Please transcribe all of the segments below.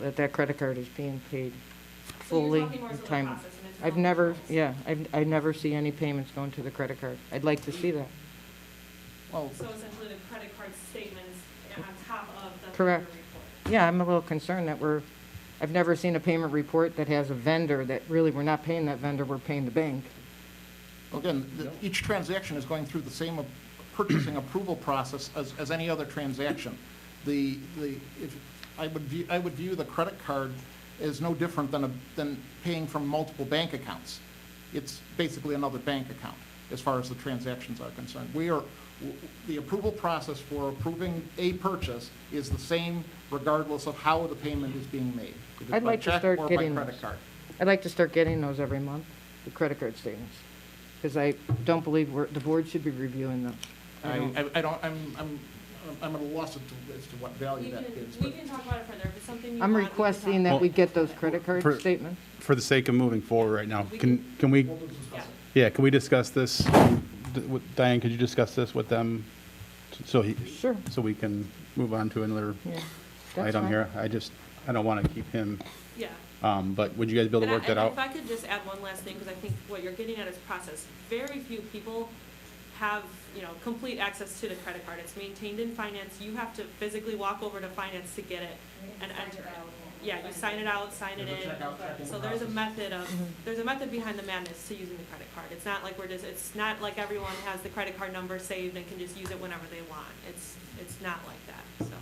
that that credit card is being paid So fully you're talking more so in the time. process and it's I've not never, the yeah, I've, I never see any payments going to the credit card. I'd like to see that. Well, So essentially, the credit card statement is on top of the vendor Correct. report. Yeah, I'm a little concerned that we're, I've never seen a payment report that has a vendor that really, we're not paying that vendor, we're paying the bank. again, the- each transaction is going through the same ap- purchasing approval process as, as any other transaction. The, the, if, I would view, I would view the credit card as no different than a, than paying from multiple bank accounts. It's basically another bank account, as far as the transactions are concerned. We are, w- the approval process for approving a purchase is the same regardless of how the payment is being made. if it's I'd by like to check start or by getting credit those. card. I'd like to start getting those every month, the credit card statements, because I don't believe we're, the board should be reviewing them. I, I- I don't, I'm, I'm, I'm at a loss as to, as to what We value that can, gives. we but- can talk about it further, if it's something you want. I'm we can talk requesting about that it. we get those credit card For- statements. for the sake of moving forward right now, We can, can we, We'll discuss it. yeah, can we discuss this? D- with- Diane, could you discuss this with them? So he, Sure. so we can move on to another Yeah, that's item fine. here? I just, I don't want to keep him, Yeah. um, but would you guys be able to And I- work that and out? If I could just add one last thing, because I think what you're getting at is process. Very few people have, you know, complete access to the credit card. It's maintained in finance. You have to physically walk over to finance to get it and enter it. Yeah, you sign it out, sign it There's a checkout, check-in in. So there's a process. method of, Mm-hmm. there's a method behind the madness to using the credit card. It's not like we're just, it's not like everyone has the credit card number saved and can just use it whenever they want. It's, it's not like that, so.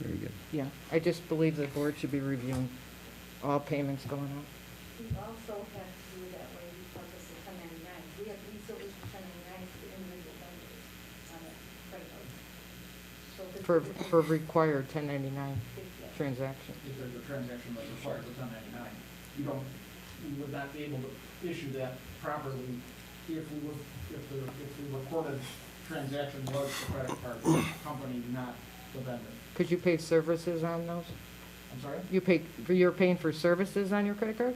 Very good. Yeah, I just believe the board should be reviewing all payments going out. We also have to do it that way because it's a ten ninety-nine. We have resources for ten ninety-nines to individual vendors on a credit card. So this For, is- for required 1099 Yeah. transaction. If there's a transaction that requires a ten ninety-nine, you don't, we would not be able to issue that properly if we were, if the, if the recorded transaction was the credit card company, not the vendor. Could you pay services on those? I'm sorry? You pay, you're paying for services on your credit card?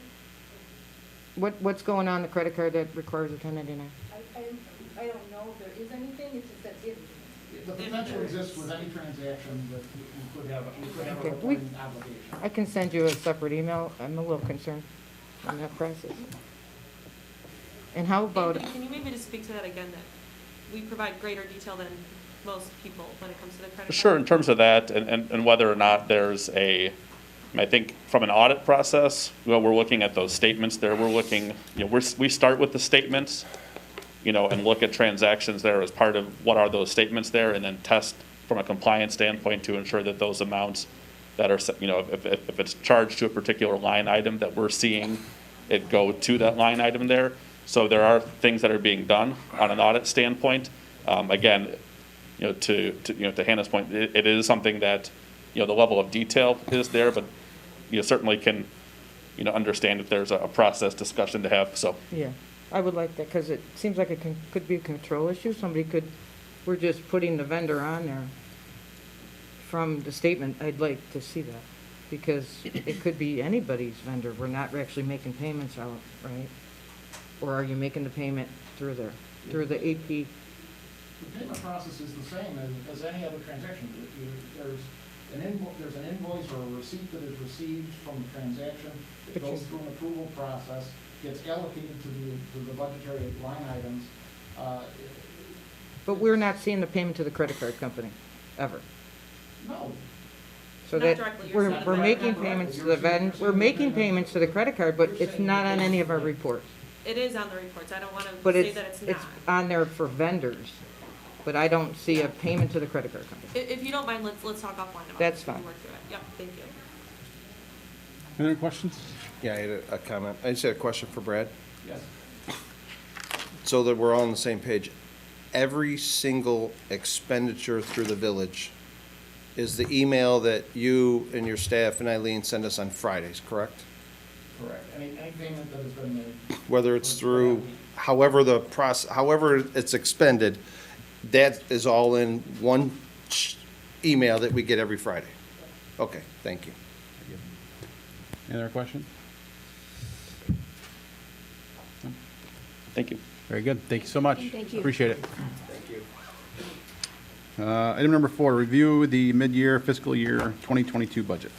What, what's going on the credit card that requires a 1099? I, I, I don't know if there is anything, it's just that if, The potential exists with any transaction that we could have, we could have Okay, a we- reporting obligation. I can send you a separate email. I'm a little concerned on that process. And how about, Anthony, can you maybe just speak to that again, that we provide greater detail than most people when it comes to the credit card? Sure, in terms of that, and, and, and whether or not there's a, I mean, I think from an audit process, well, we're looking at those statements there, we're looking, you know, we're, s- we start with the statements, you know, and look at transactions there as part of what are those statements there, and then test from a compliance standpoint to ensure that those amounts that are, set- you know, if, if, if it's charged to a particular line item, that we're seeing it go to that line item there. So there are things that are being done on an audit standpoint. Um, again, you know, to, to, you know, to Hannah's point, it, it is something that, you know, the level of detail is there, but you certainly can, you know, understand if there's a, a process discussion to have, so. yeah, I would like that because it seems like it can, could be a control issue. Somebody could, we're just putting the vendor on there from the statement. I'd like to see that because it could be anybody's vendor. We're not actually making payments out, right? Or are you making the payment through there, through the AP? The payment process is the same as, as any other transaction. You- you- There's an invoice, there's an invoice or a receipt that is received from the transaction. It But you- goes through an approval process, gets allocated to the, to the budgetary line items. Uh, But we're not seeing the payment to the credit card company, ever. No, So Not that, directly, you're we're, saying we're that- making Correct. payments to You're the saying- ven, you're we're saying making that- payments to the credit card, but you're it's saying not that on any of our that's- reports. It is on the reports, I don't want to But say it's, that it's not. it's on there for vendors, but I don't see a payment to the credit card company. I- If, you don't mind, let's, let's talk offline about it. That's We can fine. work through it. Yep, thank you. Any other questions? Yeah, I had a- a comment. I just had a question for Brad. yes. So that we're all on the same page, every single expenditure through the village is the email that you and your staff and Eileen send us on Fridays, correct? Correct. Any, any payment that has been made. Whether it's through, however the process, however it's expended, that is all in one sh- email that we get every Friday. Okay, thank you. Any other questions? Thank you. Very good. Thank you so much. Thank you. Appreciate it. Thank you. Uh, item number four, review the mid-year fiscal year 2022 budget.